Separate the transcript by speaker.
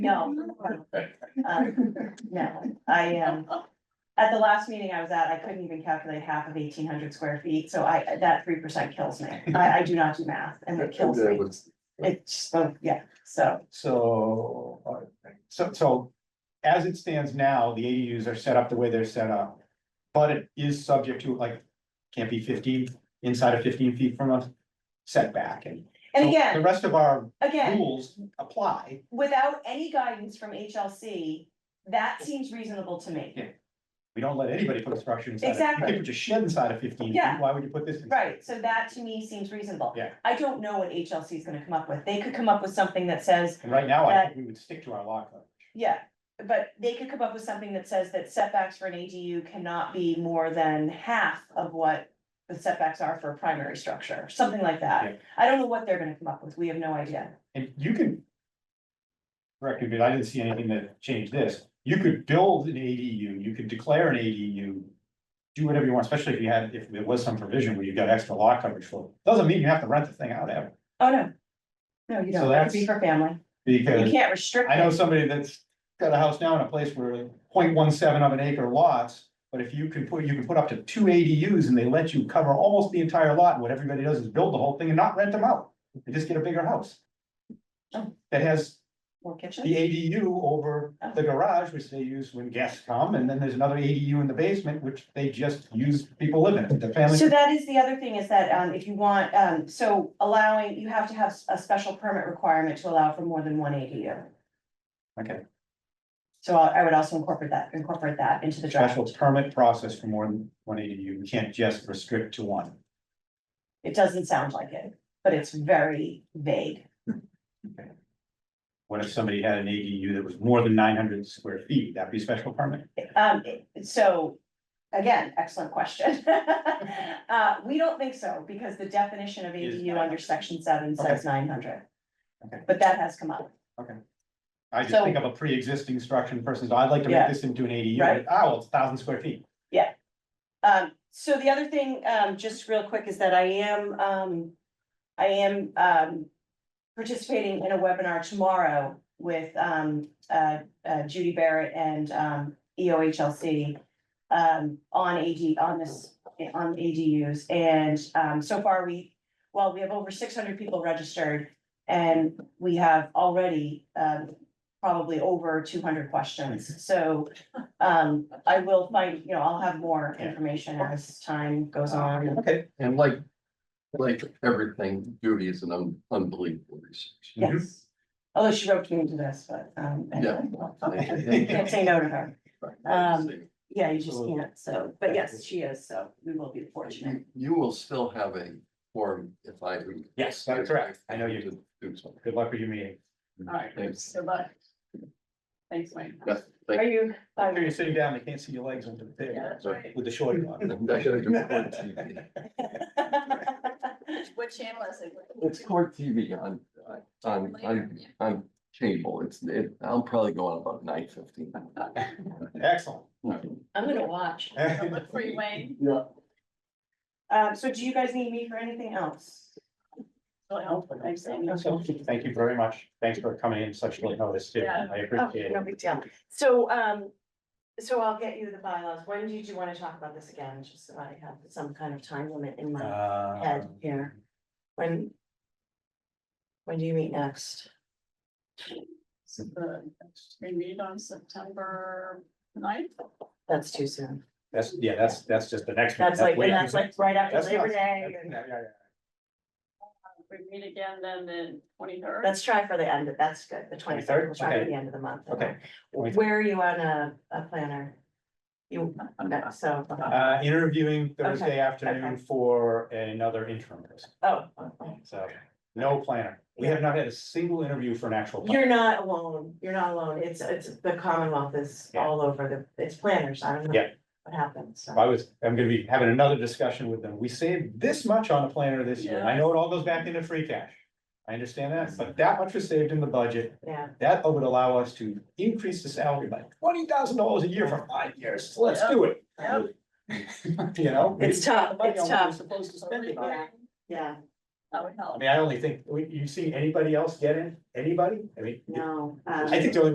Speaker 1: No. Um, No, I um at the last meeting I was at, I couldn't even calculate half of eighteen hundred square feet, so I, that three percent kills me. I, I do not do math and it kills me. It's, oh, yeah, so,
Speaker 2: So, uh, so, so as it stands now, the ADUs are set up the way they're set up. But it is subject to like, can't be fifteen, inside of fifteen feet from a setback and.
Speaker 1: and
Speaker 2: so The
Speaker 1: again,
Speaker 2: rest of our
Speaker 1: again,
Speaker 2: rules apply.
Speaker 1: without any guidance from HLC, that seems reasonable to me.
Speaker 2: Yeah. We don't let anybody put a structure inside. of-
Speaker 1: Exactly.
Speaker 2: You can put your shed inside of fifteen feet,
Speaker 1: Yeah.
Speaker 2: why would you put this? in?
Speaker 1: Right, so that to me seems reasonable.
Speaker 2: Yeah.
Speaker 1: I don't know what HLC is gonna come up with. They could come up with something that says
Speaker 2: And right now, I think we would stick to our law coverage.
Speaker 1: Yeah, but they could come up with something that says that setbacks for an ADU cannot be more than half of what the setbacks are for a primary structure, something like
Speaker 2: Yeah.
Speaker 1: that. I don't know what they're gonna come up with. We have no idea.
Speaker 2: And you can. Correct, me, but I didn't see anything that changed this. You could build an ADU, you could declare an ADU. Do whatever you want, especially if you had, if there was some provision where you got extra lot coverage for, it. doesn't mean you have to rent the thing out ever.
Speaker 1: Oh, no. No, you
Speaker 2: So
Speaker 1: don't. It could be for family. You
Speaker 2: Because
Speaker 1: can't restrict
Speaker 2: I know
Speaker 1: it.
Speaker 2: somebody that's got a house now in a place where 0.17 of an acre lots. But if you can put, you can put up to two ADUs and they let you cover almost the entire lot, and what everybody does is build the whole thing and not rent them out. They just get a bigger house.
Speaker 1: Oh.
Speaker 2: That has
Speaker 1: More
Speaker 2: the
Speaker 1: kitchen.
Speaker 2: ADU over the garage, which they use when guests come, and then there's another ADU in the basement, which they just use, people live in it, the family.
Speaker 1: So that is the other thing is that, um, if you want, um, so allowing, you have to have a special permit requirement to allow for more than one ADU.
Speaker 2: Okay,
Speaker 1: So I I would also incorporate that, incorporate that into the draft.
Speaker 2: special permit process for more than one ADU, we can't just restrict to one.
Speaker 1: It doesn't sound like it, but it's very vague.
Speaker 2: What if somebody had an ADU that was more than nine hundred square feet, that'd be a special permit?
Speaker 1: Um, so, again, excellent question. Uh, we don't think so, because the definition of
Speaker 2: Is
Speaker 1: ADU under
Speaker 2: 900.
Speaker 1: section seven says nine hundred.
Speaker 2: Okay.
Speaker 1: But that has come up,
Speaker 2: I just
Speaker 1: So-
Speaker 2: think of a pre-existing structure, and the person says, I'd like to make
Speaker 1: Yeah.
Speaker 2: this into an ADU,
Speaker 1: Right.
Speaker 2: ah, well, it's thousand square feet.
Speaker 1: um, so the other thing, um, just real quick, is that I am, um, I am, um. Participating in a webinar tomorrow with, um, uh, uh, Judy Barrett and, um, EOHLC. Um, on AD, on this, on ADUs, and, um, so far we, well, we have over six hundred people registered. And we have already, um, probably over two hundred questions, so, um, I will find, you know, I'll have more information as time goes on.
Speaker 2: Okay.
Speaker 3: And like, like everything, Judy is an un- unbelievable research.
Speaker 2: Mhm.
Speaker 1: Yes, although she roped me into this, but, um, anyway. can't say no to her. Um, Yeah, you just
Speaker 2: Absolutely.
Speaker 1: can't, so, but yes, she is, so we will be fortunate.
Speaker 3: You- You will still have a form if I do.
Speaker 2: Yes, that's correct, I know you,
Speaker 3: do. Do something.
Speaker 2: good luck with your meeting.
Speaker 4: All right,
Speaker 3: Thanks.
Speaker 4: good luck. Thanks, Wayne.
Speaker 3: Yeah,
Speaker 1: Are
Speaker 3: thank-
Speaker 1: you?
Speaker 2: If you're sitting down, they can't see your legs under the
Speaker 4: Yeah,
Speaker 2: table
Speaker 4: that's right.
Speaker 2: with the short on.
Speaker 3: I gotta do court TV.
Speaker 4: What channel is it?
Speaker 3: It's court TV on, on, on, on cable. It's, it, I'll probably go on about nine fifteen.
Speaker 2: Excellent.
Speaker 4: I'm gonna watch. I'll Look for you, Wayne.
Speaker 3: Yeah.
Speaker 1: Um, so do you guys need me for anything else?
Speaker 4: Well, thanks, Amy.
Speaker 2: Thank you very much. Thanks for coming in such late notice, too.
Speaker 4: Yeah.
Speaker 2: I
Speaker 1: Oh,
Speaker 2: appreciate
Speaker 1: no
Speaker 2: it.
Speaker 1: big deal. So, um, so I'll get you the bylaws. When did you want to talk about this again? Just so I have some kind of time limit in my head
Speaker 2: Um,
Speaker 1: here. When? When do you meet next?
Speaker 4: So the- We meet on September 9th.
Speaker 1: That's too soon.
Speaker 2: That's, yeah, that's, that's just the next. one.
Speaker 1: That's like,
Speaker 2: way
Speaker 1: and that's
Speaker 2: too-
Speaker 1: like right after
Speaker 2: that's
Speaker 1: Labor
Speaker 2: not-
Speaker 1: Day.
Speaker 2: that's-
Speaker 1: and-
Speaker 2: yeah, yeah, yeah.
Speaker 4: We meet again then the twenty-third.
Speaker 5: Let's try for the end of, that's good, the twenty third,
Speaker 2: 23rd?
Speaker 5: we'll try
Speaker 2: Okay.
Speaker 5: for the end of the month.
Speaker 2: Okay.
Speaker 5: Where are you on a, a planner? You, okay, so,
Speaker 2: Uh, interviewing Thursday
Speaker 5: Okay,
Speaker 2: afternoon for another interim person,
Speaker 5: oh,
Speaker 2: so no planner. We have not had a single interview for an actual. planner.
Speaker 5: you're not alone, you're not alone, it's, it's, the Commonwealth is
Speaker 2: Yeah.
Speaker 5: all over the, it's planners, I don't know.
Speaker 2: Yeah.
Speaker 5: What happened,
Speaker 2: If
Speaker 5: so,
Speaker 2: I was, I'm gonna be having another discussion with them. We saved this much on the planner this year. and I know it all goes back into free cash. I understand that, but that much was saved in the budget.
Speaker 5: yeah,
Speaker 2: That would allow us to increase the salary by twenty thousand dollars a year for five years, let's do it.
Speaker 4: Yep.
Speaker 2: You know? we
Speaker 5: It's tough,
Speaker 2: spend the money
Speaker 5: it's
Speaker 2: on what we're
Speaker 5: tough.
Speaker 2: Supposed to spend it on.
Speaker 4: That
Speaker 5: yeah,
Speaker 4: would
Speaker 2: I
Speaker 4: help.
Speaker 2: mean, I only think, we- you see anybody else get in, anybody? I mean,
Speaker 5: no. um,
Speaker 2: I think the only